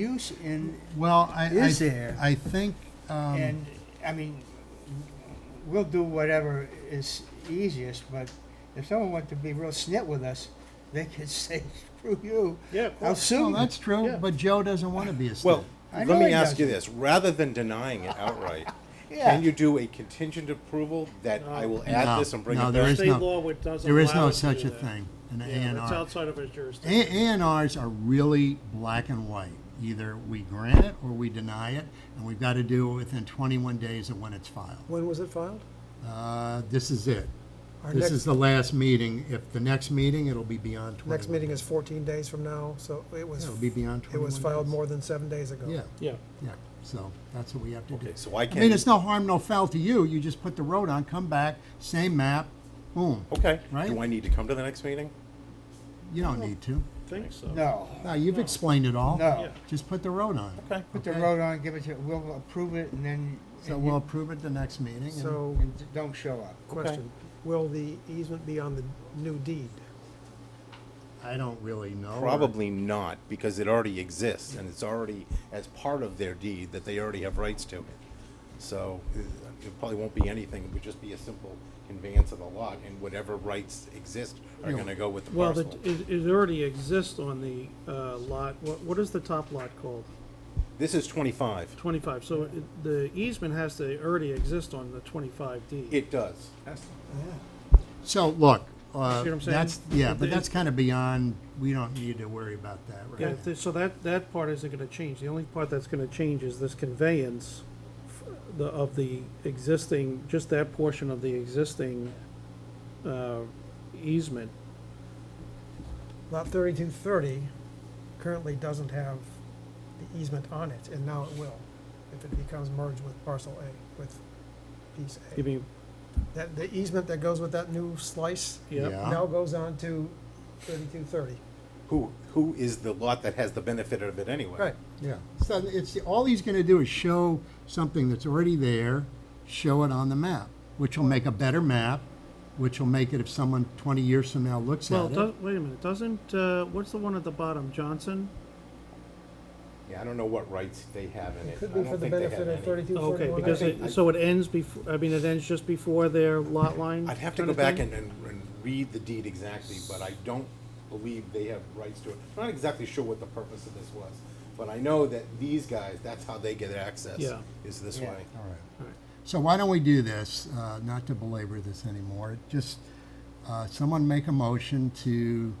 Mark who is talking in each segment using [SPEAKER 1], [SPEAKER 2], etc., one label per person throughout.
[SPEAKER 1] use in,
[SPEAKER 2] Well, I,
[SPEAKER 1] Is
[SPEAKER 2] I-
[SPEAKER 1] there?
[SPEAKER 2] I think, um,
[SPEAKER 1] and, I mean, we'll do whatever is easiest, but if someone wanted to be real snit with us, they could say, screw you,
[SPEAKER 3] Yeah, of
[SPEAKER 1] I'll
[SPEAKER 3] course.
[SPEAKER 1] sue
[SPEAKER 2] well,
[SPEAKER 1] you.
[SPEAKER 2] that's true,
[SPEAKER 3] Yeah.
[SPEAKER 2] but Joe doesn't want to be a state.
[SPEAKER 3] Well,
[SPEAKER 1] I
[SPEAKER 3] let
[SPEAKER 1] know
[SPEAKER 3] me
[SPEAKER 1] he
[SPEAKER 3] ask you
[SPEAKER 1] doesn't.
[SPEAKER 3] this, rather than denying it outright,
[SPEAKER 1] Yeah,
[SPEAKER 3] can you do a contingent approval that I will
[SPEAKER 2] No,
[SPEAKER 3] add this and bring
[SPEAKER 2] no,
[SPEAKER 3] it
[SPEAKER 2] there
[SPEAKER 3] back?
[SPEAKER 2] is
[SPEAKER 4] State
[SPEAKER 2] no-
[SPEAKER 4] law would- doesn't
[SPEAKER 2] There is
[SPEAKER 4] allow
[SPEAKER 2] no
[SPEAKER 4] us to
[SPEAKER 2] such
[SPEAKER 4] do
[SPEAKER 2] a
[SPEAKER 4] that.
[SPEAKER 2] thing, an A
[SPEAKER 4] Yeah,
[SPEAKER 2] and
[SPEAKER 4] that's
[SPEAKER 2] R.
[SPEAKER 4] outside of his
[SPEAKER 2] A
[SPEAKER 4] jurisdiction.
[SPEAKER 2] and Rs are really black and white. Either we grant it or we deny it, and we've got to do it within twenty-one days of when it's filed.
[SPEAKER 5] When was it filed?
[SPEAKER 2] Uh, this is it.
[SPEAKER 5] Our
[SPEAKER 2] This
[SPEAKER 5] next-
[SPEAKER 2] is the last meeting. If the next meeting, it'll be beyond twenty-one.
[SPEAKER 5] Next meeting is 14 days from now, so it was,
[SPEAKER 2] It'll be beyond
[SPEAKER 5] it
[SPEAKER 2] twenty-one
[SPEAKER 5] was filed
[SPEAKER 2] days.
[SPEAKER 5] more than seven days ago.
[SPEAKER 2] Yeah,
[SPEAKER 3] Yeah,
[SPEAKER 2] yeah, so that's what we have to do.
[SPEAKER 3] okay, so I
[SPEAKER 2] I mean,
[SPEAKER 3] can,
[SPEAKER 2] it's no harm, no foul to you. You just put the road on, come back, same map, boom.
[SPEAKER 3] okay,
[SPEAKER 2] Right?
[SPEAKER 3] do I need to come to the next meeting?
[SPEAKER 2] You don't need to.
[SPEAKER 4] Think so.
[SPEAKER 1] no,
[SPEAKER 2] No, you've explained it all.
[SPEAKER 1] no.
[SPEAKER 4] Yeah.
[SPEAKER 2] Just put the road on.
[SPEAKER 3] Okay.
[SPEAKER 1] Put the road on, give it to, we'll approve it, and then,
[SPEAKER 2] So
[SPEAKER 1] and
[SPEAKER 2] we'll
[SPEAKER 1] you-
[SPEAKER 2] approve it the next meeting. and-
[SPEAKER 5] So,
[SPEAKER 1] and d- don't show up.
[SPEAKER 5] question, will the easement be on the new deed?
[SPEAKER 2] I don't really know.
[SPEAKER 3] Probably not, because it already exists, and it's already as part of their deed that they already have rights to. So uh, it probably won't be anything, it would just be a simple conveyance of the lot, and whatever rights exist are
[SPEAKER 2] Yeah.
[SPEAKER 3] gonna go with the
[SPEAKER 4] Well, it,
[SPEAKER 3] parcel.
[SPEAKER 4] it it already exists on the uh, lot, what, what is the top lot called?
[SPEAKER 3] This is twenty-five.
[SPEAKER 4] Twenty-five, so it- the easement has to already exist on the twenty-five D.
[SPEAKER 3] It does.
[SPEAKER 2] So, look, uh,
[SPEAKER 4] See what I'm saying?
[SPEAKER 2] that's, yeah, but
[SPEAKER 4] It-
[SPEAKER 2] that's kind of beyond, we don't need to worry about that right
[SPEAKER 4] Yeah,
[SPEAKER 2] now.
[SPEAKER 4] th- so that, that part isn't gonna change, the only part that's gonna change is this conveyance f- the, of the existing, just that portion of the existing, uh, easement.
[SPEAKER 5] Lot 3230 currently doesn't have the easement on it, and now it will, if it becomes merged with parcel A, with piece
[SPEAKER 4] You
[SPEAKER 5] A.
[SPEAKER 4] mean,
[SPEAKER 5] That, the easement that goes with that new slice
[SPEAKER 4] yeah,
[SPEAKER 2] Yeah.
[SPEAKER 5] now goes on to 3230.
[SPEAKER 3] Who, who is the lot that has the benefit of it anyway?
[SPEAKER 5] Right,
[SPEAKER 2] Yeah, so it's, all he's gonna do is show something that's already there, show it on the map, which will make a better map, which will make it if someone twenty years from now looks
[SPEAKER 4] well,
[SPEAKER 2] at it.
[SPEAKER 4] does, wait a minute, doesn't, uh, what's the one at the bottom, Johnson?
[SPEAKER 3] Yeah, I don't know what rights they have in it.
[SPEAKER 5] it could
[SPEAKER 3] I
[SPEAKER 5] be
[SPEAKER 3] don't
[SPEAKER 5] for the
[SPEAKER 3] think they have
[SPEAKER 5] benefit of
[SPEAKER 3] any.
[SPEAKER 5] 3231.
[SPEAKER 4] Okay, because
[SPEAKER 3] think I-
[SPEAKER 4] it, so it ends before, I mean, it ends just before their lot line?
[SPEAKER 3] I'd have to
[SPEAKER 4] kinda
[SPEAKER 3] go back
[SPEAKER 4] thing?
[SPEAKER 3] and, and, and read the deed exactly, but I don't believe they have rights to it. I'm not exactly sure what the purpose of this was, but I know that these guys, that's how they get access,
[SPEAKER 4] Yeah.
[SPEAKER 3] is this
[SPEAKER 1] Yeah.
[SPEAKER 3] way.
[SPEAKER 2] All right.
[SPEAKER 4] Alright.
[SPEAKER 2] So why don't we do this, uh, not to belabor this anymore, just, uh, someone make a motion to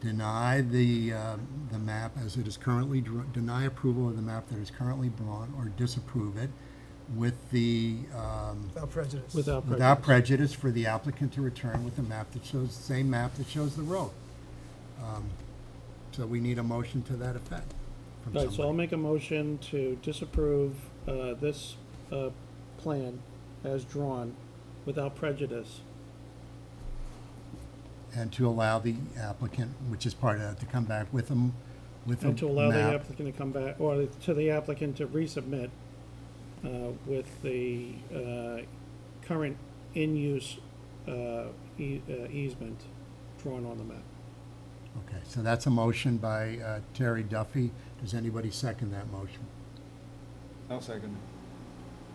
[SPEAKER 2] deny the, uh, the map as it is currently, dr- deny approval of the map that is currently drawn or disapprove it with the, um,
[SPEAKER 5] without prejudice.
[SPEAKER 4] Without
[SPEAKER 2] without
[SPEAKER 4] prejudice.
[SPEAKER 2] prejudice for the applicant to return with a map that shows, the same map that shows the road. Um, So we need a motion to that effect from
[SPEAKER 4] Right, so I'll
[SPEAKER 2] somebody.
[SPEAKER 4] make a motion to disapprove, uh, this, uh, plan as drawn without prejudice.
[SPEAKER 2] And to allow the applicant, which is part of that, to come back with them, with a
[SPEAKER 4] And to allow the
[SPEAKER 2] Oh, map.
[SPEAKER 4] applicant to come back, or to the applicant to resubmit, uh, with the, uh, current in-use, uh, e- uh, easement drawn on the map.
[SPEAKER 2] Okay, so that's a motion by uh, Terry Duffy. Does anybody second that motion?
[SPEAKER 1] I'll second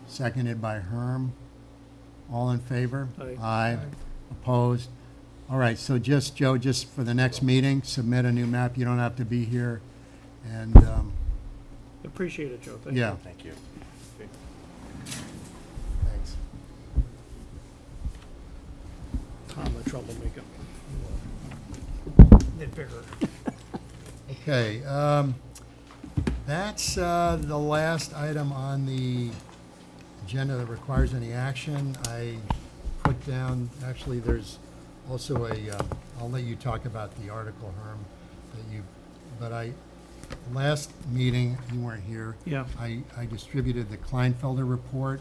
[SPEAKER 2] Seconded by Herm. All in favor?
[SPEAKER 4] Aye.
[SPEAKER 2] Opposed? All right, so just, Joe, just for the next meeting, submit a new map. You don't have to be here. And, um,
[SPEAKER 4] Appreciate it, Joe, thank you.
[SPEAKER 2] yeah,
[SPEAKER 3] Thank you.
[SPEAKER 2] thanks.
[SPEAKER 4] Tom, the troublemaker.
[SPEAKER 5] Nitpicker.
[SPEAKER 2] Okay, um, that's, uh, the last item on the agenda that requires any action. I put down, actually, there's also a, uh, I'll let you talk about the article, Herm, that you, but I, last meeting, you weren't here.
[SPEAKER 4] Yeah.
[SPEAKER 2] I, I distributed the Kleinfelder report,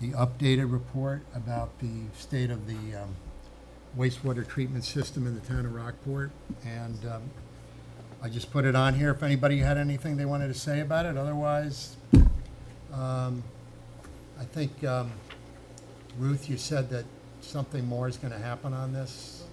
[SPEAKER 2] the updated report about the state of the, um, wastewater treatment system in the town of Rockport. And, um, I just put it on here if anybody had anything they wanted to say about it. Otherwise, um, I think, um, Ruth, you said that something more is gonna happen on this.